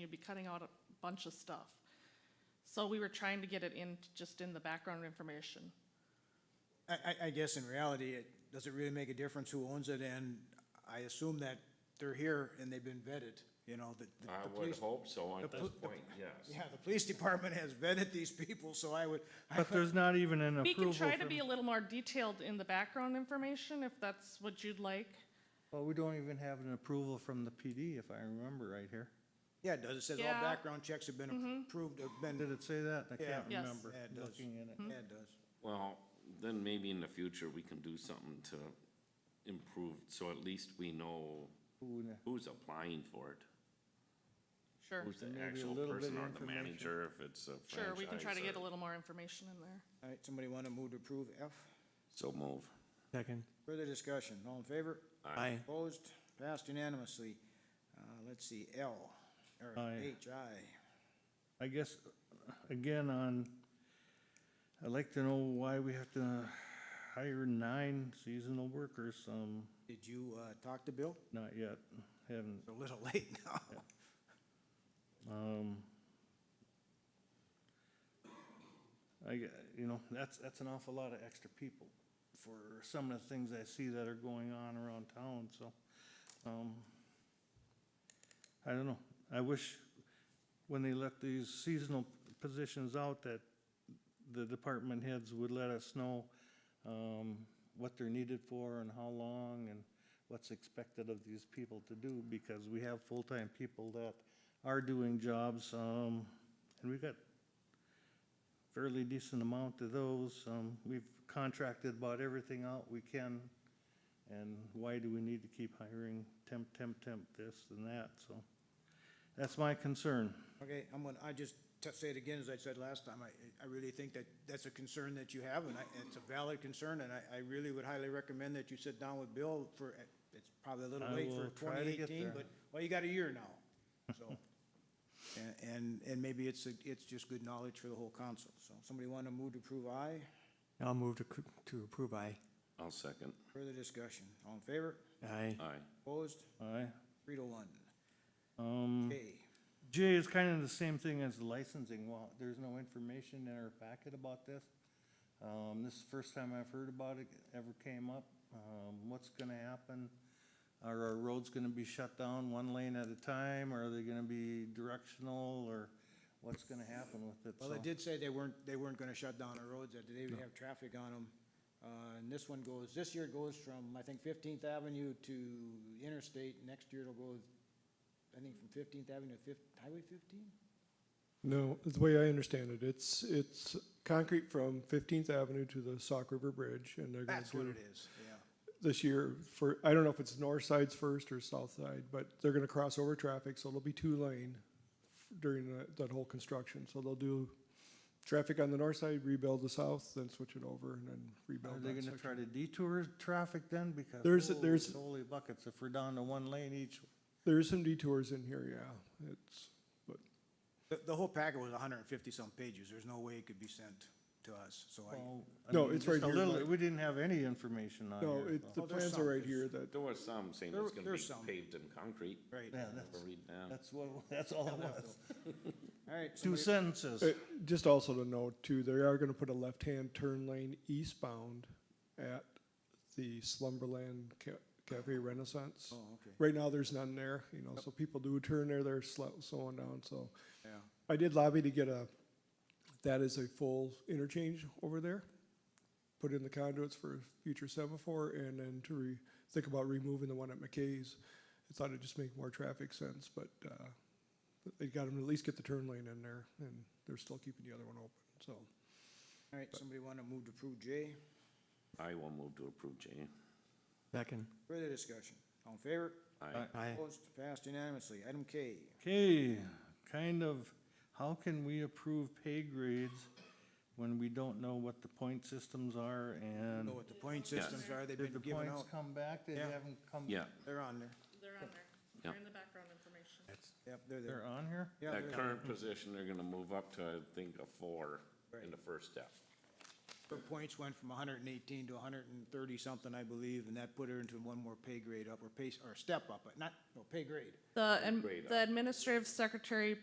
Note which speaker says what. Speaker 1: you'd be cutting out a bunch of stuff. So we were trying to get it in, just in the background information.
Speaker 2: I, I, I guess in reality, it, does it really make a difference who owns it? And I assume that they're here and they've been vetted, you know, that. the-
Speaker 3: I
Speaker 2: the
Speaker 3: would
Speaker 2: police-
Speaker 3: hope so
Speaker 2: the
Speaker 3: at this
Speaker 2: pol- the-
Speaker 3: point, yes.
Speaker 2: Yeah, the police department has vetted these people, so I would, I
Speaker 4: But there's not even an
Speaker 1: We can
Speaker 4: approval
Speaker 1: try to
Speaker 4: from-
Speaker 1: be a little more detailed in the background information if that's what you'd like.
Speaker 4: Well, we don't even have an approval from the PD, if I remember right here.
Speaker 2: yeah, it does, it says all
Speaker 1: Yeah.
Speaker 2: background checks have been approved, have been,
Speaker 4: Did it say that? I
Speaker 2: Yeah.
Speaker 4: can't
Speaker 1: Yes.
Speaker 4: remember,
Speaker 2: Yeah, it does.
Speaker 4: looking at it.
Speaker 2: yeah, it does.
Speaker 3: Well, then maybe in the future, we can do something to improve, so at least we know
Speaker 4: Who kn-
Speaker 3: who's applying for it.
Speaker 1: Sure,
Speaker 3: Who's the
Speaker 4: Maybe a
Speaker 3: actual
Speaker 4: little bit
Speaker 3: person or
Speaker 4: of
Speaker 3: the
Speaker 4: information.
Speaker 3: manager, if it's a franchise.
Speaker 1: sure, we can try to get a
Speaker 3: or-
Speaker 1: little more information in there.
Speaker 2: All right, somebody want to move to approve F?
Speaker 3: So move.
Speaker 5: Second.
Speaker 2: Further discussion, all in favor?
Speaker 5: Aye.
Speaker 2: Opposed? Passed unanimously. Uh, let's see, L, or
Speaker 4: Aye.
Speaker 2: H, I.
Speaker 4: I guess, again, on, I'd like to know why we have to hire nine seasonal workers, um,
Speaker 2: Did you, uh, talk to Bill?
Speaker 4: not yet, haven't.
Speaker 2: It's a little late now.
Speaker 4: Um, I, g- you know, that's, that's an awful lot of extra people for some of the things I see that are going on around town, so, um, I don't know. I wish when they let these seasonal positions out that the department heads would let us know, um, what they're needed for and how long and what's expected of these people to do, because we have full-time people that are doing jobs, um, and we've got fairly decent amount of those. Um, we've contracted about everything out we can, and why do we need to keep hiring temp, temp, temp, this and that, so. That's my concern.
Speaker 2: Okay, I'm gonna, I just t- say it again, as I said last time, I, I really think that that's a concern that you have, and I, it's a valid concern, and I, I really would highly recommend that you sit down with Bill for, it's probably a little
Speaker 4: I
Speaker 2: late for
Speaker 4: will try
Speaker 2: twenty
Speaker 4: to get
Speaker 2: eighteen,
Speaker 4: there.
Speaker 2: but, well, you got a year now, so. A- And, and maybe it's, a- it's just good knowledge for the whole council, so somebody want to move to approve aye,
Speaker 5: I'll move to, c- to approve. Aye.
Speaker 3: I'll second.
Speaker 2: further discussion, all in favor,
Speaker 5: Aye.
Speaker 3: Aye.
Speaker 2: opposed,
Speaker 4: Aye.
Speaker 2: three to one,
Speaker 4: Um,
Speaker 2: K.
Speaker 4: Jay, it's kind of the same thing as the licensing. Well, there's no information in our packet about this. Um, this is the first time I've heard about it, ever came up. Um, what's gonna happen? Are our roads gonna be shut down one lane at a time? Are they gonna be directional or what's gonna happen with it?
Speaker 2: Well, they
Speaker 4: So-
Speaker 2: did say they weren't, they weren't gonna shut down the roads, that they would have traffic on them. Uh, and this one goes, this year it goes from, I think, Fifteenth Avenue to Interstate, next year it'll go, I think, from Fifteenth Avenue to Fif, Highway fifteen?
Speaker 6: No, the way I understand it, it's, it's concrete from Fifteenth Avenue to the Sauk River Bridge, and they're gonna
Speaker 2: That's what
Speaker 6: do
Speaker 2: it is, yeah.
Speaker 6: this year for, I don't know if it's north side's first or south side, but they're gonna cross over traffic, so it'll be two lane during that, that whole construction, so they'll do traffic on the north side, rebuild the south, then switch it over, and then
Speaker 4: Are
Speaker 6: rebuild
Speaker 4: they
Speaker 6: that
Speaker 4: gonna
Speaker 6: section.
Speaker 4: try to detour traffic then? Because.
Speaker 6: There's-
Speaker 4: holy
Speaker 6: there's-
Speaker 4: Holy buckets, if we're down to one lane each,
Speaker 6: There's some detours in here, yeah, it's, but
Speaker 2: The, the whole packet was hundred and fifty-some pages, there's no way it could be sent to us, so I,
Speaker 4: well, I
Speaker 6: No,
Speaker 4: mean,
Speaker 6: it's
Speaker 4: just
Speaker 6: right
Speaker 4: a
Speaker 6: here,
Speaker 4: little-
Speaker 6: Mike.
Speaker 4: We didn't have any information on
Speaker 6: No,
Speaker 4: here.
Speaker 6: it,
Speaker 4: so-
Speaker 6: the
Speaker 2: Oh, there's
Speaker 6: plans are right
Speaker 2: some.
Speaker 6: here that,
Speaker 3: There was some saying
Speaker 2: There-
Speaker 3: it's gonna
Speaker 2: there's some.
Speaker 3: be paved in concrete.
Speaker 2: right.
Speaker 4: Yeah,
Speaker 3: I
Speaker 4: that's,
Speaker 3: remember reading that.
Speaker 4: that's what, that's all it was.
Speaker 2: All right,
Speaker 4: Two
Speaker 2: somebody,
Speaker 4: sentences.
Speaker 6: Uh, Just also to note too, they are gonna put a left-hand turn lane eastbound at the Slumberland Ca- Cafe Renaissance.
Speaker 2: oh, okay,
Speaker 6: Right now, there's none there, you know, so people do turn there, they're slow, slowing down, so.
Speaker 2: yeah.
Speaker 6: I did lobby to get a, that is a full interchange over there. Put in the conduits for future semaphore and then to re, think about removing the one at McKay's. I thought it'd just make more traffic sense, but, uh, they got them to at least get the turn lane in there and they're still keeping the other one open, so.
Speaker 2: All right, somebody wanna move to approve J,
Speaker 3: I will move to approve, Jay.
Speaker 5: Second.
Speaker 2: further discussion, all in favor,
Speaker 3: Aye.
Speaker 5: Aye.
Speaker 2: opposed, passed unanimously, item K.
Speaker 4: Okay, kind of, how can we approve pay grades when we don't know what the point systems are and?
Speaker 2: Know what the point
Speaker 3: Yes.
Speaker 2: systems are, they've
Speaker 4: Did the
Speaker 2: been given
Speaker 4: points
Speaker 2: out,
Speaker 4: come back? They
Speaker 2: Yeah.
Speaker 4: haven't come?
Speaker 3: Yeah,
Speaker 2: they're on there,
Speaker 1: They're on there,
Speaker 3: They're
Speaker 1: they're
Speaker 3: Yeah.
Speaker 1: in the background information.
Speaker 2: yep, they're there.
Speaker 4: They're on here?
Speaker 2: Yeah,
Speaker 3: that
Speaker 2: they're-
Speaker 3: current position, they're gonna move up to, I think, a four in the first step.
Speaker 2: Her points went from hundred and eighteen to hundred and thirty something, I believe, and that put her into one more pay grade up or pay, or step up, but not, no, pay grade.
Speaker 1: The,
Speaker 3: Grade up.
Speaker 1: the administrative secretary